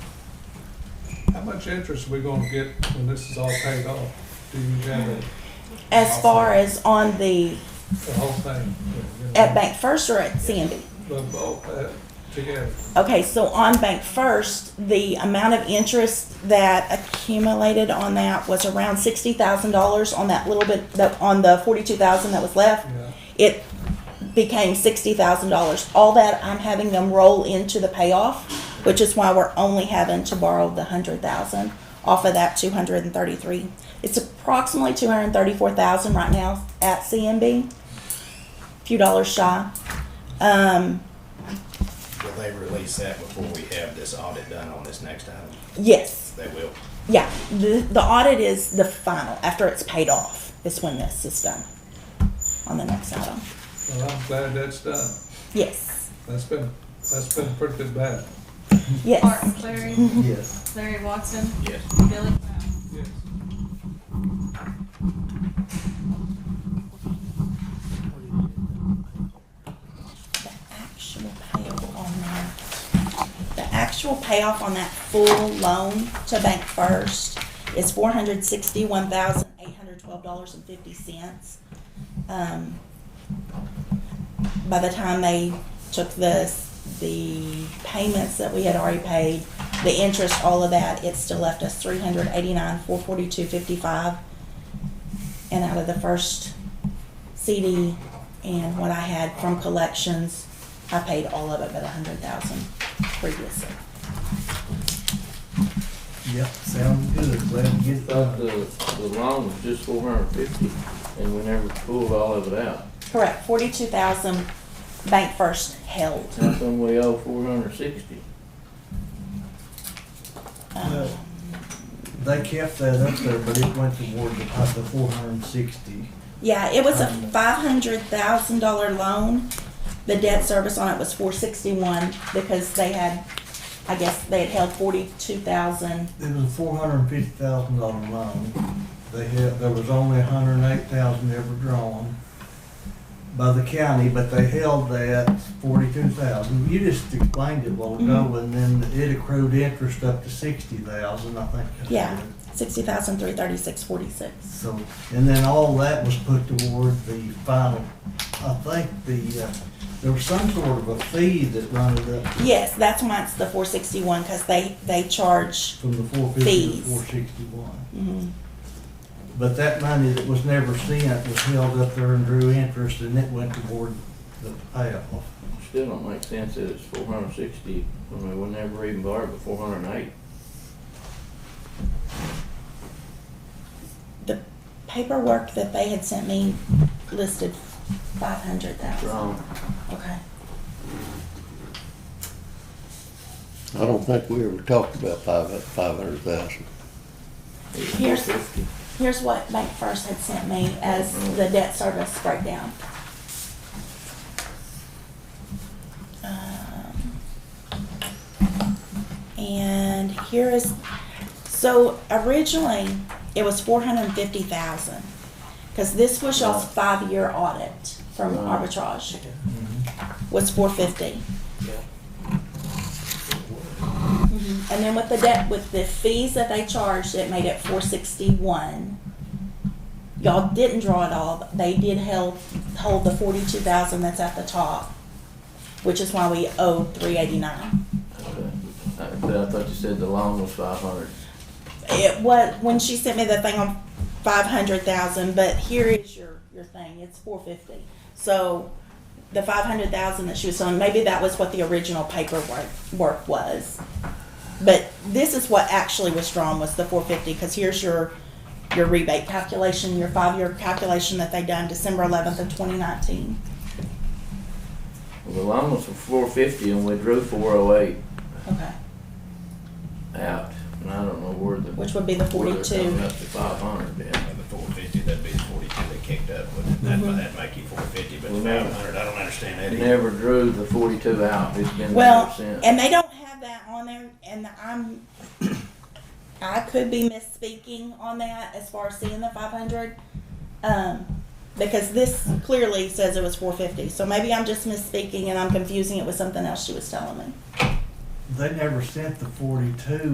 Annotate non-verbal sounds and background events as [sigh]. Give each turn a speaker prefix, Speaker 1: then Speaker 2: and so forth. Speaker 1: How much interest we gonna get when this is all paid off? Do you have it,
Speaker 2: As far as on the,
Speaker 1: the whole thing?
Speaker 2: at Bank First or at Sandy?
Speaker 1: The, both, uh, together,
Speaker 2: Okay, so on Bank First, the amount of interest that accumulated on that was around sixty thousand dollars on that little bit, that, on the forty-two thousand that was left.
Speaker 1: yeah.
Speaker 2: It became sixty thousand dollars. All that, I'm having them roll into the payoff, which is why we're only having to borrow the hundred thousand off of that two hundred and thirty-three. It's approximately two hundred and thirty-four thousand right now at CMB, few dollars shy. Um,
Speaker 3: Will they release that before we have this audit done on this next item?
Speaker 2: yes.
Speaker 3: They will.
Speaker 2: Yeah, the, the audit is the final, after it's paid off, is when this is done on the next item.
Speaker 1: Well, I'm glad that's done.
Speaker 2: Yes,
Speaker 1: That's been, that's been pretty bad.
Speaker 2: yes.
Speaker 4: Martin Clary,
Speaker 5: Yes.
Speaker 4: Larry Watson,
Speaker 3: Yes.
Speaker 4: Billy Brown.
Speaker 1: Yes.
Speaker 2: The actual payoff on that, the actual payoff on that full loan to Bank First is four hundred sixty-one thousand eight hundred twelve dollars and fifty cents. Um, by the time they took the, the payments that we had already paid, the interest, all of that, it still left us three hundred eighty-nine, four forty-two, fifty-five. And out of the first CD and what I had from collections, I paid all of it but a hundred thousand previously.
Speaker 5: Yep, sounds good. Glad to get uh,
Speaker 6: Thought
Speaker 5: that.
Speaker 6: the, the loan was just four hundred and fifty, and we never pulled all of it out.
Speaker 2: Correct, forty-two thousand Bank First held.
Speaker 6: How come we owe four hundred and sixty?
Speaker 2: Um,
Speaker 5: They kept that up there, but it went toward the, uh, the four hundred and sixty.
Speaker 2: Yeah, it was a
Speaker 5: Um,
Speaker 2: five hundred thousand dollar loan. The debt service on it was four sixty-one because they had, I guess, they had held forty-two thousand.
Speaker 5: It was a four hundred and fifty thousand dollar loan. They had, there was only a hundred and eight thousand ever drawn by the county, but they held that forty-two thousand. You just explained it a while ago, and then it accrued interest up to sixty thousand, I think. that's
Speaker 2: Yeah.
Speaker 5: what it
Speaker 2: Sixty thousand three thirty-six forty-six.
Speaker 5: So, and then all that was put toward the final, I think the, uh, there was some sort of a fee that run it up
Speaker 2: Yes, that's why it's the four sixty-one because they, they charge.
Speaker 5: from the four fifty to
Speaker 2: Fees.
Speaker 5: four sixty-one.
Speaker 2: mhm.
Speaker 5: But that money that was never sent was held up there and drew interest and it went toward the payoff.
Speaker 6: Still don't make sense that it's four hundred and sixty, I mean, we never even borrowed but four hundred and eight.
Speaker 2: The paperwork that they had sent me listed five hundred thousand.
Speaker 6: Wrong.
Speaker 2: Okay.
Speaker 7: I don't think we ever talked about five, five hundred thousand.
Speaker 2: Here's, here's what Bank First had sent me as the debt service breakdown. Um, And here is, so originally, it was four hundred and fifty thousand, because this was y'all's five-year audit from
Speaker 6: Right.
Speaker 2: arbitrage, was four fifty. Mm-hmm. And then with the debt, with the fees that they charged, it made it four sixty-one. Y'all didn't draw it all, but they did held, hold the forty-two thousand that's at the top, which is why we owe three eighty-nine.
Speaker 6: I, I thought you said the loan was five hundred.
Speaker 2: It was, when she sent me the thing on five hundred thousand, but here is your, your thing, it's four fifty. So the five hundred thousand that she was on, maybe that was what the original paperwork, work was. But this is what actually was drawn was the four fifty, because here's your, your rebate calculation, your five-year calculation that they done December eleventh of twenty nineteen.
Speaker 6: Well, the loan was for four fifty and we drew four oh eight
Speaker 2: Okay,
Speaker 6: out, and I don't know where the.
Speaker 2: which would be the
Speaker 6: where they're coming
Speaker 2: forty-two.
Speaker 6: Up to five hundred, yeah.
Speaker 3: And the four fifty, that'd be the forty-two they kicked up with. That'd, that'd make you four fifty, but
Speaker 6: Mhm.
Speaker 3: five hundred, I don't understand that either.
Speaker 6: Never drew the forty-two out, it's been there
Speaker 2: Well,
Speaker 6: since.
Speaker 2: and they don't have that on there, and I'm, [coughs] I could be misspeaking on that as far as seeing the five hundred. Um, because this clearly says it was four fifty, so maybe I'm just misspeaking and I'm confusing it with something else she was telling me.
Speaker 5: They never sent the forty-two